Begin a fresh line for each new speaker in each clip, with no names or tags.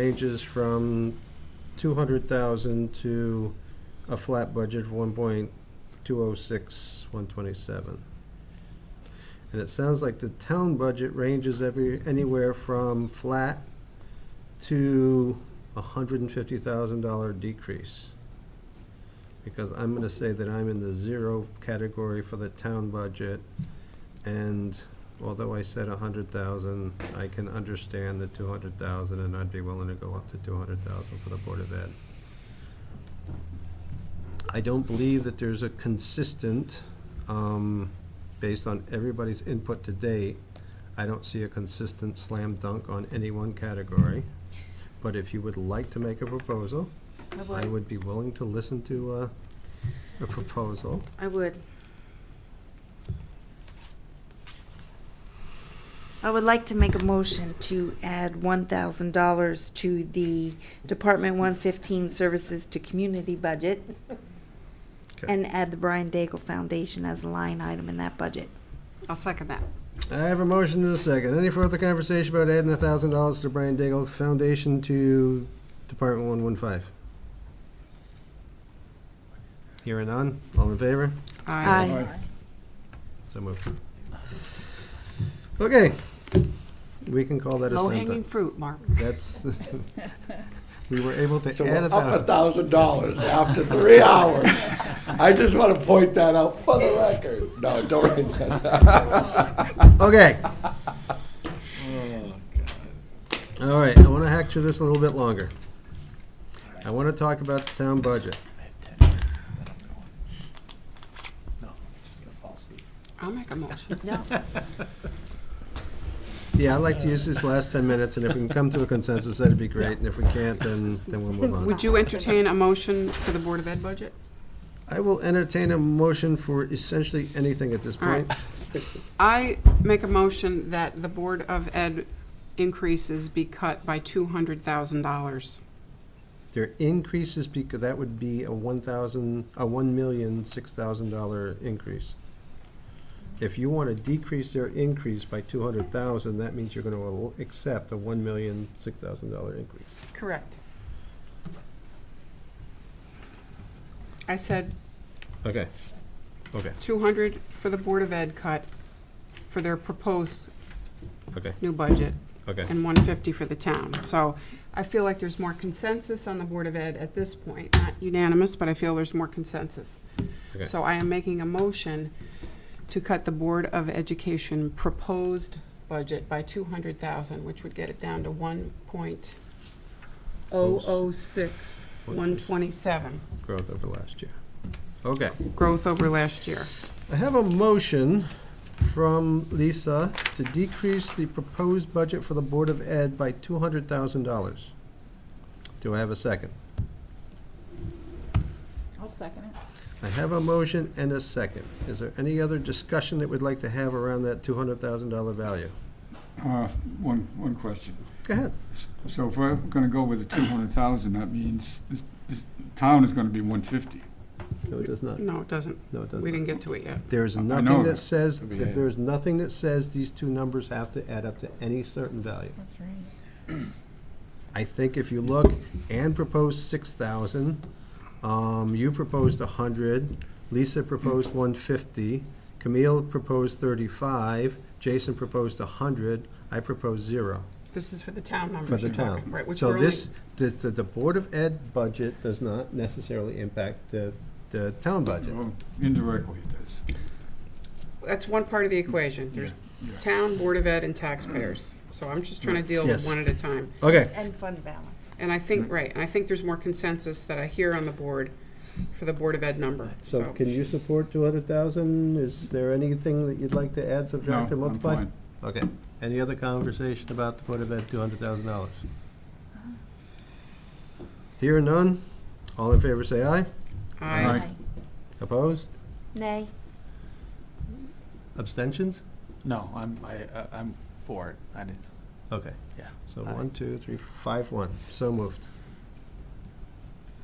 ranges from 200,000 to a flat budget of 1.206, 127. And it sounds like the town budget ranges every, anywhere from flat to a $150,000 decrease. Because I'm going to say that I'm in the zero category for the town budget, and although I said a hundred thousand, I can understand the two hundred thousand, and I'd be willing to go up to two hundred thousand for the Board of Ed. I don't believe that there's a consistent, um, based on everybody's input to date, I don't see a consistent slam dunk on any one category. But if you would like to make a proposal,
I
I
would,
would be willing to listen to, uh, a proposal.
I would. I would like to make a motion to add one thousand dollars to the Department one fifteen Services to Community budget
Okay.
and add the Brian Daigle Foundation as a line item in that budget.
I'll second that.
I have a motion and a second. Any further conversation about adding a thousand dollars to the Brian Daigle Foundation to Department one one five? Hearing none, all in favor?
Uh,
Aye.
So moved. Okay, we can call that a
Low
slam
hanging
dunk.
fruit, Mark.
That's, we were able to
So
add
we're
a
up a
thousand.
thousand dollars after three hours. I just want to point that out for the record. No, don't write that down.
Okay. All right, I want to hack through this a little bit longer. I want to talk about the town budget.
I'll make a motion.
Yeah, I'd like to use this last 10 minutes, and if we can come to a consensus, that'd be great, and if we can't, then, then we'll move on.
Would you entertain a motion for the Board of Ed budget?
I will entertain a motion for essentially anything at this
All right.
point.
I make a motion that the Board of Ed increases be cut by two hundred thousand dollars.
Their increases, because that would be a 1,000, a one million six thousand dollar increase. If you want to decrease their increase by 200,000, that means you're going to accept a one million six thousand dollar increase.
Correct. I said
Okay, okay,
two hundred for the Board of Ed cut for their proposed
okay,
new budget.
okay.
and 150 for the town. So I feel like there's more consensus on the Board of Ed at this point, not unanimous, but I feel there's more consensus.
Okay.
So I am making a motion to cut the Board of Education proposed budget by 200,000, which would get it down to 1.006, 127,
Growth over last year. Okay.
growth over last year.
I have a motion from Lisa to decrease the proposed budget for the Board of Ed by two hundred thousand dollars. Do I have a second?
I'll second it.
I have a motion and a second. Is there any other discussion that we'd like to have around that two hundred thousand dollar value?
Uh, One, one question.
Go ahead.
So if we're gonna go with the two hundred thousand, that means this, this town is gonna be one fifty.
No, it does not.
No, it doesn't.
No, it does
We
not.
didn't get to it yet.
There's
I
nothing
know
that
that.
says,
It'll be
that
eight.
there's nothing that says these two numbers have to add up to any certain value.
That's right.
I think if you look, Ann proposed six thousand, um, you proposed a hundred, Lisa proposed one fifty, Camille proposed thirty-five, Jason proposed a hundred, I proposed zero
This is for the town numbers.
for the
you're talking,
town.
Right, which
So
we're only-
this, the, the, the Board of Ed budget does not necessarily impact the, the town budget.
Well, Indirectly it does.
That's one part of the equation. There's
Yeah, yeah.
town, Board of Ed, and taxpayers. So I'm just trying to deal
Yes.
with one at a time.
Okay,
And fund balance.
And I think, right, and I think there's more consensus that I hear on the board for the Board of Ed number.
so
So
can you support two hundred thousand? Is there anything that you'd like to add,
No,
subtract, or
I'm
multiply?
fine.
Okay, any other conversation about the Board of Ed two hundred thousand dollars? Here none, all in favor say aye,
I,
Aye.
opposed,
Nay.
abstentions?
No, I'm, I, I- I'm for it. I didn't, s-
Okay,
yeah.
so
Aye.
one, two, three, five, one, so moved.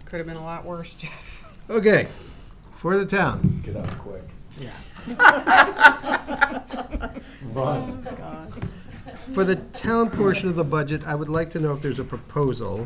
could have been a lot worse, Jeff.
Okay, for the town,
Get out quick.
Yeah.
Run.
for the town portion of the budget, I would like to know if there's a proposal